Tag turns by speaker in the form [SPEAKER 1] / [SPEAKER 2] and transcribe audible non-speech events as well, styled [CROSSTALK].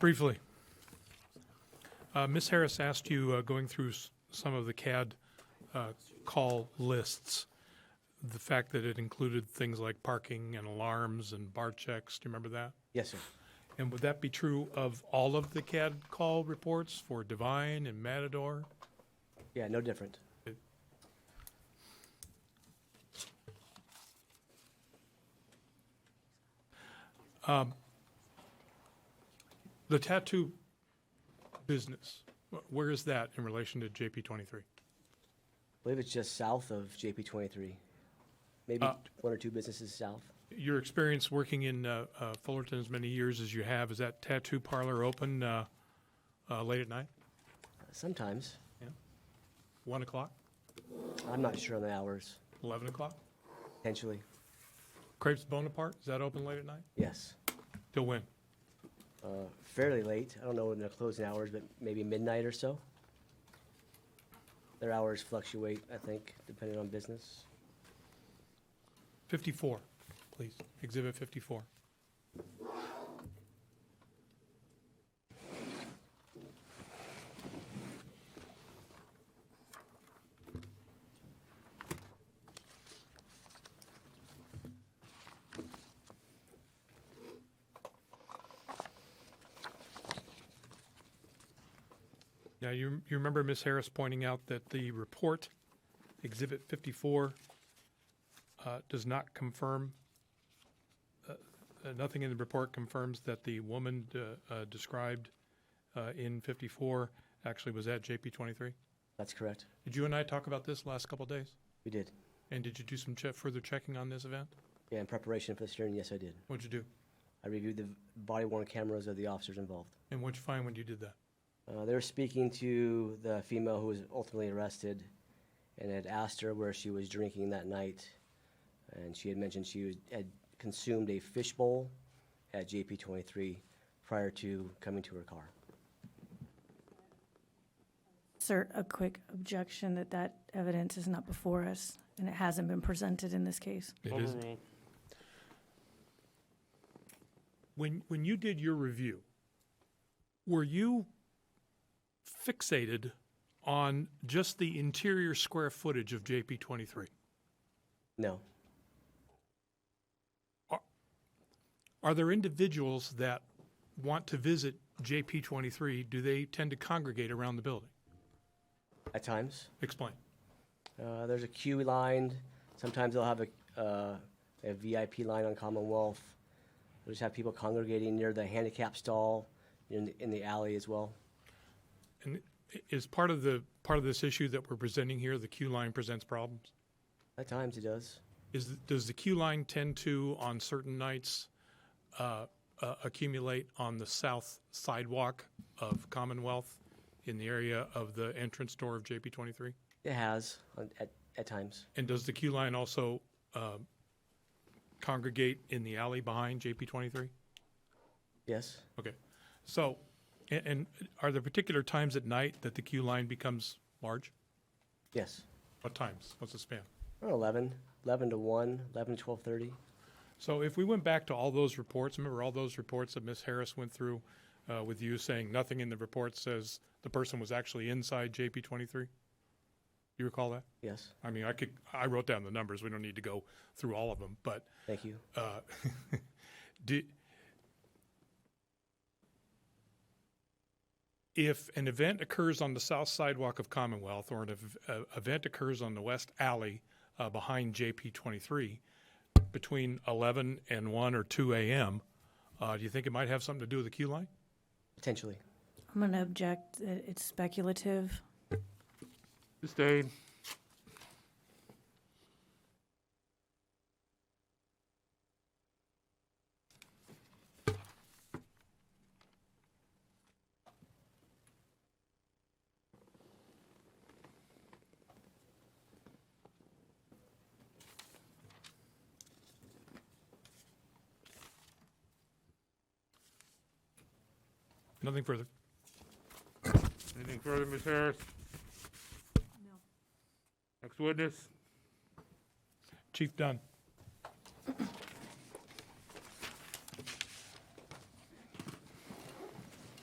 [SPEAKER 1] Briefly, uh, Ms. Harris asked you, uh, going through s- some of the CAD uh, call lists, the fact that it included things like parking and alarms and bar checks. Do you remember that?
[SPEAKER 2] Yes, sir.
[SPEAKER 1] And would that be true of all of the CAD call reports for Divine and Matador?
[SPEAKER 2] Yeah, no different.
[SPEAKER 1] The tattoo business, wh- where is that in relation to JP 23?
[SPEAKER 2] I believe it's just south of JP 23. Maybe one or two businesses south.
[SPEAKER 1] Your experience working in uh, uh, Fullerton as many years as you have, is that tattoo parlor open uh, uh, late at night,
[SPEAKER 2] Sometimes.
[SPEAKER 1] 1 o'clock,
[SPEAKER 2] I'm not sure on the hours,
[SPEAKER 1] 11 o'clock?
[SPEAKER 2] potentially.
[SPEAKER 1] Crepes Bonaparte, is that open late at night?
[SPEAKER 2] Yes.
[SPEAKER 1] Till when?
[SPEAKER 2] Uh, fairly late. I don't know when their closing hours, but maybe midnight or so. Their hours fluctuate, I think, depending on business.
[SPEAKER 1] 54, please, Exhibit 54. Now, you you remember Ms. Harris pointing out that the report, Exhibit 54, uh, does not confirm, uh, uh, nothing in the report confirms that the woman uh, uh, described uh, in 54 actually was at JP 23?
[SPEAKER 2] That's correct.
[SPEAKER 1] Did you and I talk about this last couple of days?
[SPEAKER 2] We did.
[SPEAKER 1] And did you do some che- further checking on this event?
[SPEAKER 2] Yeah, in preparation for this hearing, yes, I did.
[SPEAKER 1] What'd you do?
[SPEAKER 2] I reviewed the body worn cameras of the officers involved.
[SPEAKER 1] And what'd you find when you did that?
[SPEAKER 2] Uh, they were speaking to the female who was ultimately arrested and had asked her where she was drinking that night. And she had mentioned she was, had consumed a fishbowl at JP 23 prior to coming to her car.
[SPEAKER 3] Sir, a quick objection that that evidence is not before us, and it hasn't been presented in this case.
[SPEAKER 1] It is. When, when you did your review, were you fixated on just the interior square footage of JP 23?
[SPEAKER 2] No,
[SPEAKER 1] Are there individuals that want to visit JP 23? Do they tend to congregate around the building?
[SPEAKER 2] at times.
[SPEAKER 1] Explain.
[SPEAKER 2] Uh, there's a queue line. Sometimes they'll have a, uh, a VIP line on Commonwealth. They'll just have people congregating near the handicap stall in the, in the alley as well.
[SPEAKER 1] And i- is part of the, part of this issue that we're presenting here, the queue line presents problems?
[SPEAKER 2] At times it does.
[SPEAKER 1] Is, does the queue line tend to, on certain nights, uh, uh, accumulate on the south sidewalk of Commonwealth in the area of the entrance door of JP 23?
[SPEAKER 2] It has on, at, at times.
[SPEAKER 1] And does the queue line also uh, congregate in the alley behind JP 23?
[SPEAKER 2] Yes.
[SPEAKER 1] Okay. So, and, and are there particular times at night that the queue line becomes large?
[SPEAKER 2] Yes.
[SPEAKER 1] What times? What's the span?
[SPEAKER 2] Or 11, 11 to 1, 11 to 12:30.
[SPEAKER 1] So if we went back to all those reports, remember all those reports that Ms. Harris went through uh, with you saying nothing in the report says the person was actually inside JP 23? You recall that?
[SPEAKER 2] Yes.
[SPEAKER 1] I mean, I could, I wrote down the numbers. We don't need to go through all of them, but
[SPEAKER 2] Thank you.
[SPEAKER 1] uh, [LAUGHS] do, if an event occurs on the south sidewalk of Commonwealth or an ev- uh, event occurs on the west alley uh, behind JP 23 between 11 and 1 or 2 a.m., uh, do you think it might have something to do with the queue line?
[SPEAKER 2] Potentially.
[SPEAKER 3] I'm going to object that it's speculative.
[SPEAKER 4] Sustained.
[SPEAKER 1] Nothing further.
[SPEAKER 4] Anything further, Ms. Harris?
[SPEAKER 3] No.
[SPEAKER 4] Next witness?
[SPEAKER 1] Chief Dunn.